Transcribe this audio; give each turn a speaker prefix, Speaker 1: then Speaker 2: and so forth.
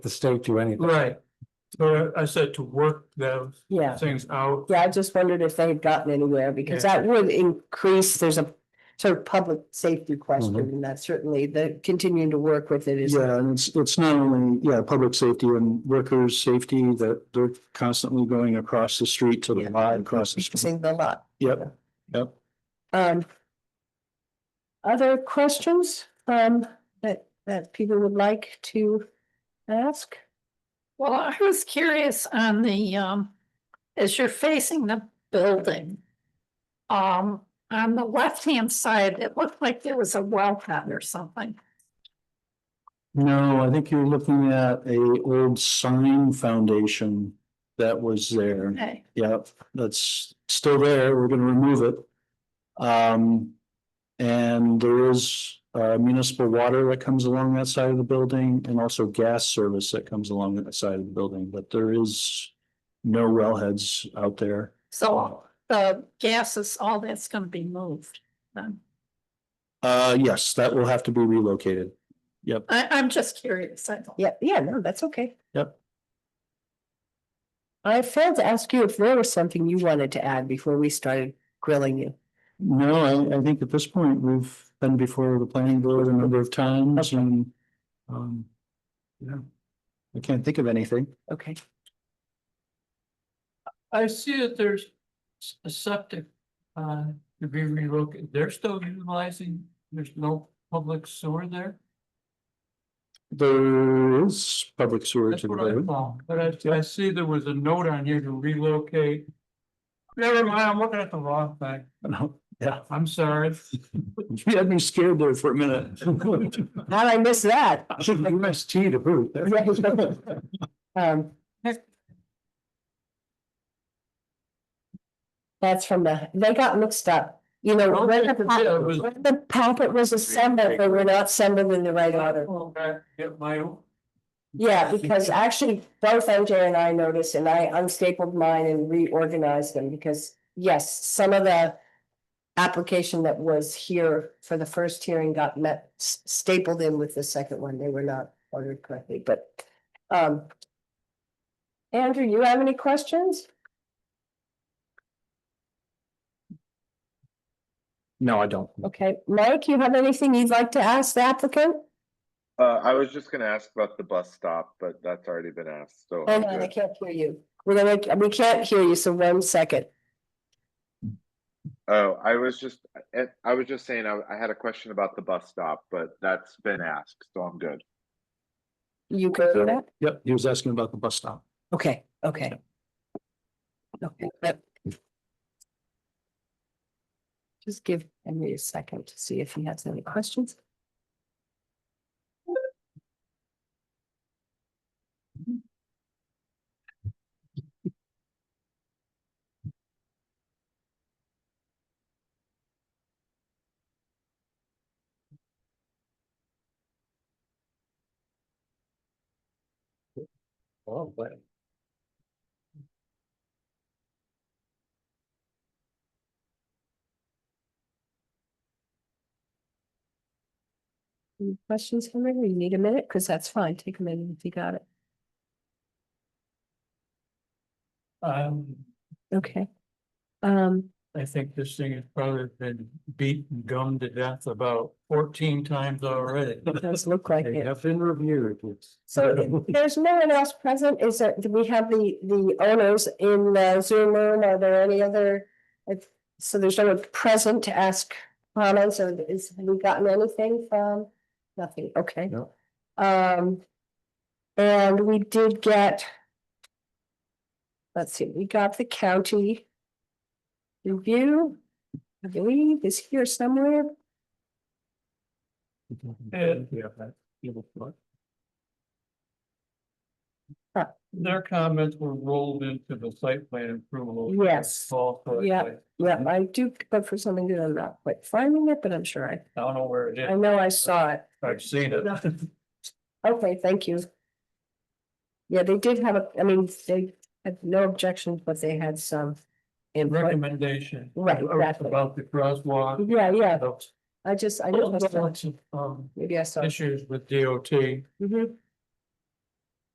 Speaker 1: the state do anything.
Speaker 2: Right. So I said to work those
Speaker 3: Yeah,
Speaker 2: things out.
Speaker 3: yeah, I just wondered if they had gotten anywhere because that would increase, there's a sort of public safety question and that certainly the continuing to work with it is.
Speaker 4: Mm-hmm. Yeah, and it's, it's not only, yeah, public safety and workers' safety that they're constantly going across the street to the
Speaker 3: Yeah.
Speaker 4: lot, across the street.
Speaker 3: Increasing the lot.
Speaker 4: Yep, yep.
Speaker 3: Um. Other questions, um, that, that people would like to ask?
Speaker 5: Well, I was curious on the, um, as you're facing the building. Um, on the left-hand side, it looked like there was a well pad or something.
Speaker 4: No, I think you're looking at a old sign foundation that was there.
Speaker 5: Okay,
Speaker 4: Yep, that's still there. We're gonna remove it. Um, and there is uh municipal water that comes along that side of the building and also gas service that comes along that side of the building, but there is no wellheads out there.
Speaker 5: so uh, the gases, all that's gonna be moved then.
Speaker 4: Uh, yes, that will have to be relocated. Yep,
Speaker 5: I, I'm just curious. I don't.
Speaker 3: Yeah, yeah, no, that's okay.
Speaker 4: Yep.
Speaker 3: I failed to ask you if there was something you wanted to add before we started grilling you.
Speaker 4: no, I I think at this point, we've been before the planning board a number of times and um, yeah. I can't think of anything.
Speaker 3: Okay,
Speaker 2: I see that there's s- a septic uh to be relocated. They're still utilizing, there's no public sewer there.
Speaker 4: There is public sewer
Speaker 2: That's
Speaker 4: to
Speaker 2: what I
Speaker 4: the
Speaker 2: thought, but I I see there was a note on here to relocate. Never mind, I'm looking at the wrong thing.
Speaker 4: road. Yeah,
Speaker 2: I'm sorry.
Speaker 4: you had me scared there for a minute.
Speaker 3: how'd I miss that?
Speaker 4: UST to boot.
Speaker 3: Um. That's from the, they got mixed up, you know, when the,
Speaker 2: Yeah,
Speaker 3: pa-
Speaker 2: it was-
Speaker 3: when the packet was assembled, they were not assembled in the right order.
Speaker 2: Okay, Get my.
Speaker 3: Yeah, because actually both MJ and I noticed and I unstapled mine and reorganized them because, yes, some of the. Application that was here for the first hearing got met s- stapled in with the second one. They were not ordered correctly, but um. Andrew, you have any questions?
Speaker 4: No, I don't.
Speaker 3: Okay, Mike, you have anything you'd like to ask the applicant?
Speaker 6: Uh, I was just gonna ask about the bus stop, but that's already been asked, so.
Speaker 3: Oh
Speaker 6: I'm
Speaker 3: no, I
Speaker 6: good.
Speaker 3: can't hear you. We're gonna, we can't hear you, so one second.
Speaker 6: Oh, I was just, I, I was just saying, I, I had a question about the bus stop, but that's been asked, so I'm good.
Speaker 3: You go to that?
Speaker 4: Yep, he was asking about the bus stop.
Speaker 3: Okay, okay. Okay, but- Just give Henry a second to see if he has any questions. Any questions, Henry? You need a minute, because that's fine. Take a minute if you got it.
Speaker 2: Um,
Speaker 3: Okay. Um,
Speaker 2: I think this thing has probably been beat and gummed to death about fourteen times already.
Speaker 3: it does look like
Speaker 1: They
Speaker 3: it.
Speaker 1: have been reviewed. It's-
Speaker 3: So there's no one else present. Is there, do we have the, the owners in the Zoom room? Are there any other? if- So there's no one present to ask comments or is, have we gotten anything from? Nothing, okay.
Speaker 1: No.
Speaker 3: Um, and we did get. Let's see, we got the county. Review, I believe is here somewhere. Uh, Uh,
Speaker 2: Their comments were rolled into the site plan approval.
Speaker 3: Yes.
Speaker 2: Fall site
Speaker 3: Yeah.
Speaker 2: plan.
Speaker 3: Yeah, I do, but for something that I'm not quite finding it, but I'm sure I.
Speaker 2: I don't know where it
Speaker 3: I
Speaker 2: is.
Speaker 3: know I saw it.
Speaker 2: I've seen it.
Speaker 3: Okay, thank you. Yeah, they did have, a. I mean, they had no objections, but they had some. input.
Speaker 2: Recommendation.
Speaker 3: Right, exactly.
Speaker 2: About the crosswalk.
Speaker 3: Yeah, yeah,
Speaker 2: Those-
Speaker 3: I just, I know. I
Speaker 2: those
Speaker 3: saw it.
Speaker 2: lots of, um,
Speaker 3: Maybe I saw. it.
Speaker 2: Issues with DOT.
Speaker 3: Mhm.